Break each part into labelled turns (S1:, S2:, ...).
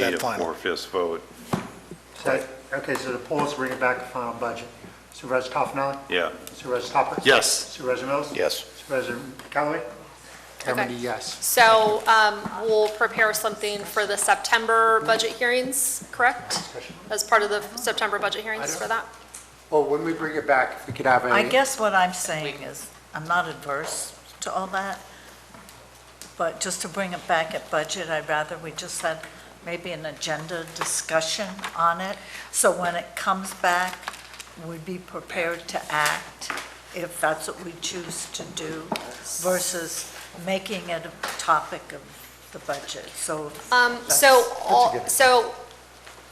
S1: that
S2: need a
S1: final?
S2: four-fifths vote.
S3: So, okay, so the polls bring it back to final budget. Supervisor Toffenali?
S2: Yeah,
S3: Supervisor Hopper?
S4: Yes.
S3: Supervisor Mills?
S1: Yes.
S3: Supervisor Callaway?
S5: Okay.
S3: Cameron, yes.
S5: So um, we'll prepare something for the September budget hearings, correct? As part of the September budget hearings for that?
S6: Well, Oh, when we bring it back, if we could have a.
S7: I guess what I'm saying is, I'm not adverse to all that, but just to bring it back at budget, I'd rather we just had maybe an agenda discussion on it, so when it comes back, we'd be prepared to act if that's what we choose to do, versus making it a topic of the budget, so.
S5: Um,
S7: that's-
S5: So, all- so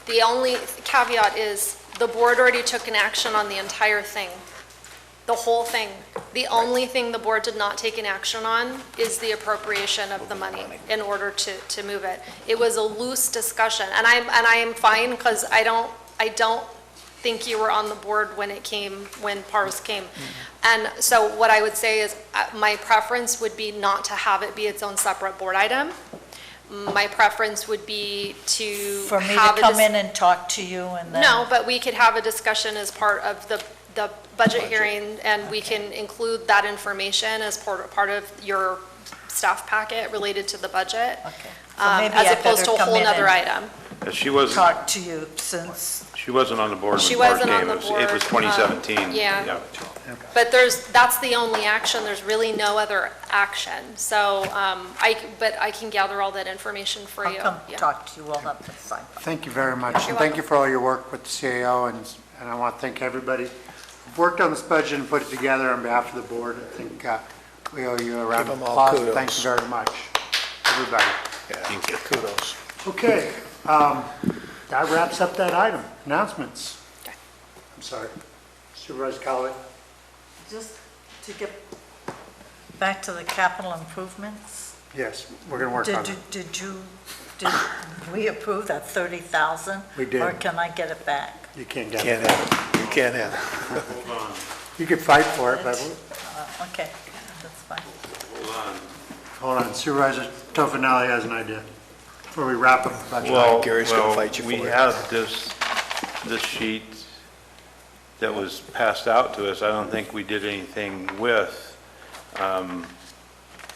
S5: the only caveat is the board already took an action on the entire thing, the whole thing. The only thing the board did not take an action on is the appropriation of the money in order to, to move it. It was a loose discussion, and I'm, and I am fine because I don't, I don't think you were on the board when it came, when PARS came. And so what I would say is, uh, my preference would be not to have it be its own separate board item. My preference would be to
S7: For me to
S5: have a
S7: come
S5: dis-
S7: in and talk to you and then.
S5: No, but we could have a discussion as part of the, the budget hearing, and we can include that information as part, part of your staff packet related to the budget.
S7: Okay. So
S5: um,
S7: maybe
S5: As
S7: I
S5: opposed to a
S7: better come
S5: whole
S7: in
S5: nother
S7: and
S5: item.
S2: And she wasn't,
S7: Talk to you since,
S2: she wasn't on the board
S5: She
S2: when Bart
S5: wasn't on
S2: came.
S5: the
S2: It was- It
S5: board,
S2: was
S5: um,
S2: 2017.
S5: yeah. But there's, that's the only action, there's really no other action. So, um, I, c- but I can gather all that information for
S7: I'll
S5: you.
S7: come
S5: Yeah.
S7: talk to you all at the same time.
S3: Thank you very much, and thank you for all your work with the CAO, and, and I want to thank everybody who worked on this budget and put it together on behalf of the board. I think uh, we owe you a round
S1: Give
S3: of
S1: 'em all
S3: applause. Thank you very much, everybody.
S1: Yeah, kudos.
S3: Okay, um, that wraps up that item. Announcements. I'm sorry. Supervisor Callaway?
S7: Just to get back to the capital improvements,
S3: Yes, we're going to work on
S7: did
S3: it.
S7: you, did you, did we approve that 30,000?
S3: We did.
S7: Or can I get it back?
S3: You can't get it.
S1: Can't have, you can't have.
S3: You could fight for it, but,
S7: Uh, Okay, that's fine.
S3: hold on, Supervisor Toffenali has an idea before we wrap up the budget.
S2: Well,
S1: Gary's gonna
S2: well,
S1: fight you
S2: we
S1: for it.
S2: had this, this sheet that was passed out to us. I don't think we did anything with. um,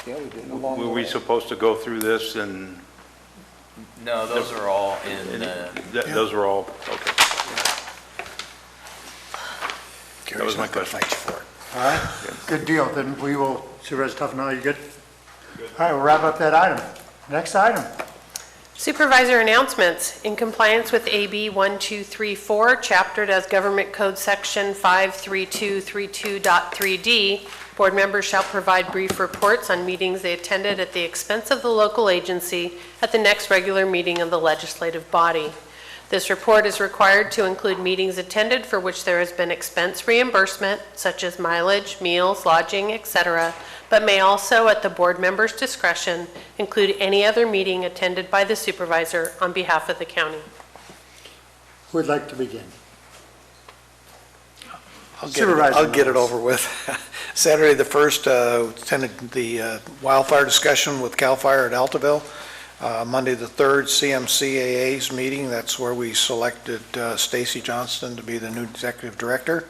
S1: Yeah, we did.
S2: Were we supposed to go through this and,
S8: No, those are all
S2: and
S8: in the,
S2: th- those were all, okay.
S1: Gary's
S2: was my
S1: not gonna
S2: question.
S1: fight you for it.
S3: Good deal, then we will, Supervisor Toffenali, you good? All right, we'll wrap up that item. Next item.
S9: Supervisor announcements. In compliance with AB 1234, chaptered as Government Code Section 53232.3D, board members shall provide brief reports on meetings they attended at the expense of the local agency at the next regular meeting of the legislative body. This report is required to include meetings attended for which there has been expense reimbursement, such as mileage, meals, lodging, etc., but may also, at the board member's discretion, include any other meeting attended by the supervisor on behalf of the county.
S3: Who would like to begin?
S1: I'll get it- I'll get it over with. Saturday, the 1st, uh, attended the uh, wildfire discussion with CAL FIRE at Altaville. Uh, Monday, the 3rd, CMCAA's meeting, that's where we selected uh, Stacy Johnston to be the new executive director,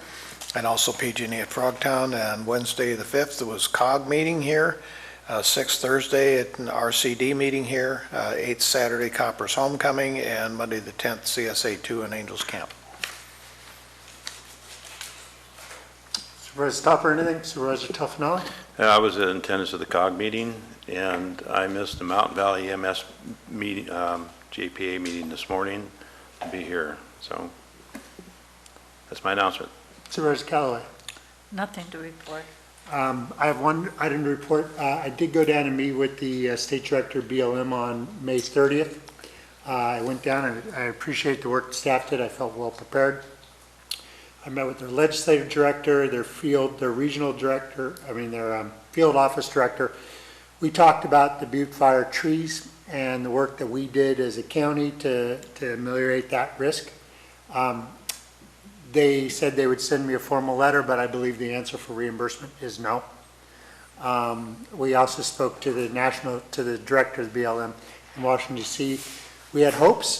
S1: and also PG&E at Frogtown. And Wednesday, the 5th, it was COG meeting here. Uh, 6th, Thursday, at an RCD meeting here. Uh, 8th, Saturday, Copper's Homecoming, and Monday, the 10th, CSA 2 and Angels Camp.
S3: Supervisor Topper, anything? Supervisor Toffenali?
S2: Uh, I was in attendance of the COG meeting, and I missed the Mountain Valley MS meeting, um, JPA meeting this morning to be here, so that's my announcement.
S3: Supervisor Callaway?
S7: Nothing to report.
S3: Um, I have one item to report. Uh, I did go down and meet with the uh, State Director BLM on May 30th. Uh, I went down and I appreciate the work the staff did. I felt well prepared. I met with their legislative director, their field, their regional director, I mean, their um, field office director. We talked about the Butte Fire trees and the work that we did as a county to to ameliorate that risk. Um, they said they would send me a formal letter, but I believe the answer for reimbursement is no. Um, We also spoke to the national, to the director of BLM in Washington DC. we had hopes,